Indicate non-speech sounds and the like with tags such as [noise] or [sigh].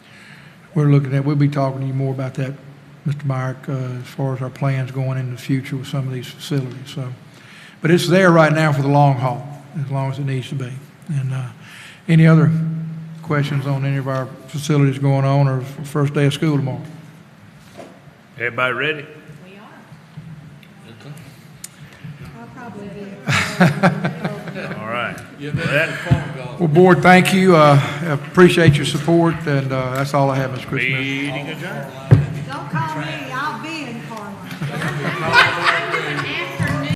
we're looking at, we'll be talking to you more about that, Mr. Myrick, uh, as far as our plans going in the future with some of these facilities, so. But it's there right now for the long haul, as long as it needs to be. And uh, any other questions on any of our facilities going on or first day of school tomorrow? Everybody ready? We are. [laughs] All right. Yeah, that's a phone call. Well, Board, thank you. Uh, Appreciate your support, and uh, that's all I have, Mr. Christmas. Meeting adjourned. Don't call me, I'll be in Carmel.